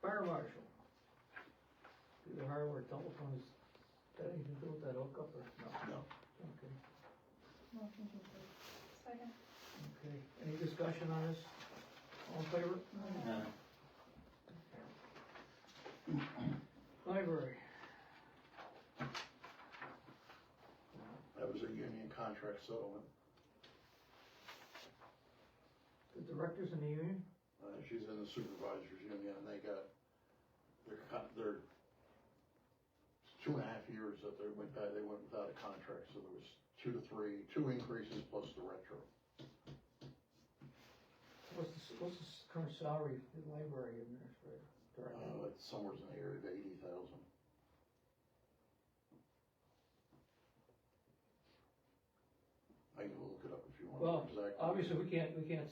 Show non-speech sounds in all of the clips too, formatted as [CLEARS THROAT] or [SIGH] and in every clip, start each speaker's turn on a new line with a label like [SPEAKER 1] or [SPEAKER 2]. [SPEAKER 1] fire marshal. Do the hardware telephones, that anything to do with that hookup or?
[SPEAKER 2] No.
[SPEAKER 1] Okay,
[SPEAKER 3] Motion to approve. Second.
[SPEAKER 1] okay. Any discussion on this? All in favor?
[SPEAKER 2] No.
[SPEAKER 1] Library.
[SPEAKER 2] That was a union contract settlement.
[SPEAKER 1] The directors in the union?
[SPEAKER 2] Uh, she's in the supervisors union and they got, their con their two and a half years that they went by, they went without a contract, so there was two to three, two increases plus the retro.
[SPEAKER 1] What's the, what's the current salary for the library administrator, director?
[SPEAKER 2] Uh, it's somewhere in the area of eighty thousand. I can look it up if you want.
[SPEAKER 1] Well,
[SPEAKER 2] exactly.
[SPEAKER 1] Obviously, we can't, we can't,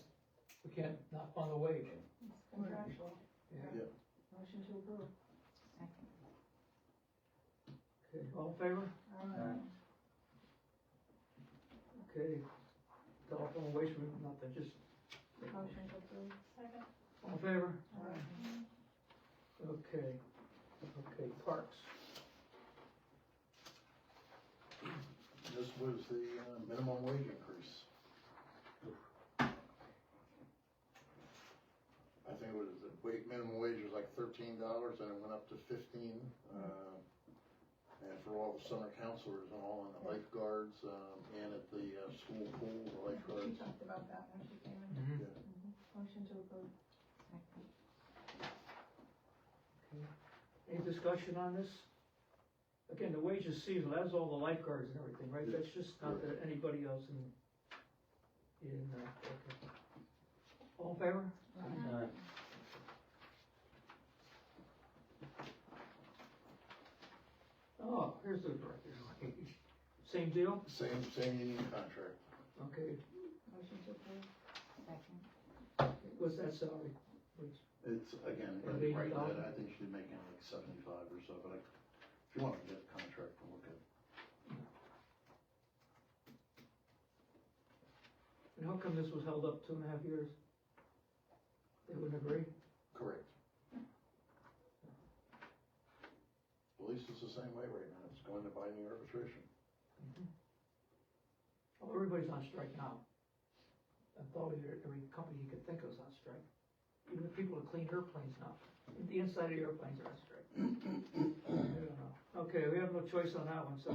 [SPEAKER 1] we can't not fund the wage.
[SPEAKER 3] It's contractual.
[SPEAKER 1] Yeah.
[SPEAKER 3] Motion to approve.
[SPEAKER 4] Second.
[SPEAKER 1] Okay, all in favor?
[SPEAKER 3] Aye.
[SPEAKER 1] Okay. Telephone waste, we- nothing, just.
[SPEAKER 3] Motion to approve. Second.
[SPEAKER 1] All in favor?
[SPEAKER 3] Aye.
[SPEAKER 1] Okay, okay, parks.
[SPEAKER 2] This was the uh, minimum wage increase. I think it was, the wa- minimum wage was like thirteen dollars, and it went up to fifteen, uh, and for all the summer counselors and all, and the lifeguards, um, and at the, uh, school pool, the
[SPEAKER 3] She
[SPEAKER 2] lifeguards.
[SPEAKER 3] talked about that when she came in.
[SPEAKER 1] Mm-hmm.
[SPEAKER 3] Motion to approve.
[SPEAKER 4] Second.
[SPEAKER 1] Any discussion on this? Again, the wage is seasonal, that's all the lifeguards and everything, right? That's just not that anybody else in, in, uh, okay. All in favor?
[SPEAKER 5] Uh-huh.
[SPEAKER 4] Aye.
[SPEAKER 1] Oh, here's the director's wage. Same deal?
[SPEAKER 2] Same, same union contract,
[SPEAKER 1] Okay,
[SPEAKER 3] Motion to approve.
[SPEAKER 4] Second.
[SPEAKER 1] what's that salary? What's-
[SPEAKER 2] it's, again,
[SPEAKER 1] It'll be
[SPEAKER 2] right,
[SPEAKER 1] $80?
[SPEAKER 2] I think she's making like seventy-five or so, but I, if you wanna get the contract, we'll look at it.
[SPEAKER 1] And how come this was held up two and a half years? They wouldn't agree?
[SPEAKER 2] Correct. Police is the same way right now, it's going to binding arbitration.
[SPEAKER 1] Well, everybody's on strike now. And probably every every company you could think of is on strike. Even the people that clean airplanes now, the inside of airplanes are on strike. [COUGHS] I don't know. Okay, we have no choice on that one, so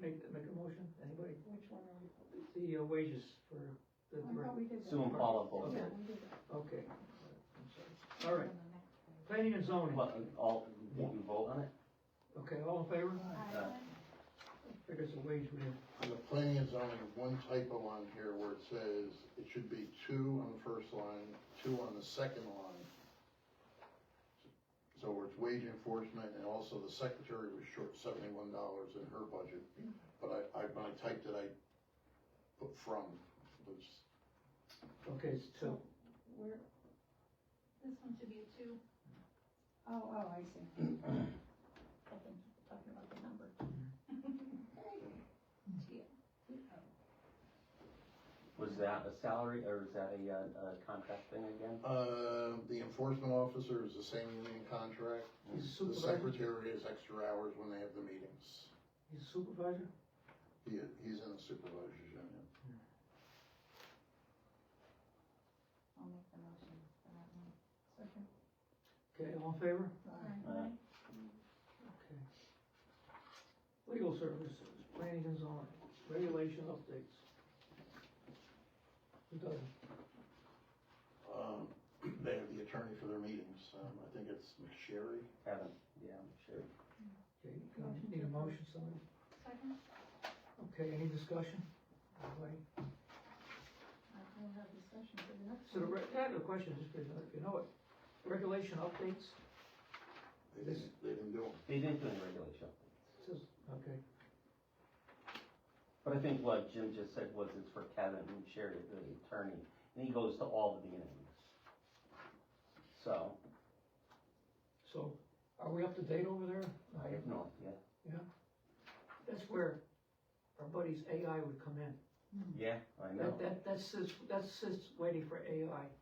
[SPEAKER 1] make, make a motion, anybody?
[SPEAKER 3] Which one are we?
[SPEAKER 1] The uh, wages for the
[SPEAKER 3] I thought
[SPEAKER 1] direct,
[SPEAKER 3] we did that.
[SPEAKER 5] Sue and Paula both.
[SPEAKER 3] Yeah, we did that.
[SPEAKER 1] okay. I'm sorry. All right, planning and zoning,
[SPEAKER 5] What, all, did you vote on it?
[SPEAKER 1] okay, all in favor?
[SPEAKER 3] Aye.
[SPEAKER 1] Figures a wage win.
[SPEAKER 2] On the planning and zoning, one typo on here where it says, it should be two on the first line, two on the second line. So it's wage enforcement, and also the secretary was short seventy-one dollars in her budget, but I, I, when I typed it, I put from, which,
[SPEAKER 1] Okay, it's two.
[SPEAKER 3] Where,
[SPEAKER 4] This one should be a two.
[SPEAKER 3] oh, oh, I see. I've been Talking about the number.
[SPEAKER 5] Was that a salary or was that a, uh, a contract thing again?
[SPEAKER 2] uh, the enforcement officer is the same union contract.
[SPEAKER 1] He's a
[SPEAKER 2] The
[SPEAKER 1] supervisor,
[SPEAKER 2] secretary is extra hours when they have the meetings.
[SPEAKER 1] he's a supervisor?
[SPEAKER 2] He, he's in the supervisor's union.
[SPEAKER 4] I'll make the motion for that one.
[SPEAKER 3] Second.
[SPEAKER 1] Okay, all in favor?
[SPEAKER 3] Aye.
[SPEAKER 5] Aye.
[SPEAKER 1] Okay. Legal services, planning and zoning, regulation updates. Who doesn't?
[SPEAKER 2] Um, [CLEARS THROAT] they have the attorney for their meetings. Um, I think it's McSherry.
[SPEAKER 5] Kevin, yeah, I'm sure.
[SPEAKER 1] Okay, can I Need a motion, somebody?
[SPEAKER 4] Second?
[SPEAKER 1] Okay, any discussion? Anybody?
[SPEAKER 3] We'll have discussion for the next
[SPEAKER 1] So the,
[SPEAKER 3] one.
[SPEAKER 1] re- I have a question, just because if you know it, regulation updates,
[SPEAKER 2] They didn't, they didn't do them.
[SPEAKER 5] They didn't do any regulation.
[SPEAKER 1] It says, okay,
[SPEAKER 5] But I think what Jim just said was it's for Kevin and Sherry, the attorney, and he goes to all the meetings. So,
[SPEAKER 1] so are we up to date over there?
[SPEAKER 5] I have no idea.
[SPEAKER 1] That's where our buddies AI would come in.
[SPEAKER 5] Yeah, I know.
[SPEAKER 1] That, that, that sits, that sits waiting for AI.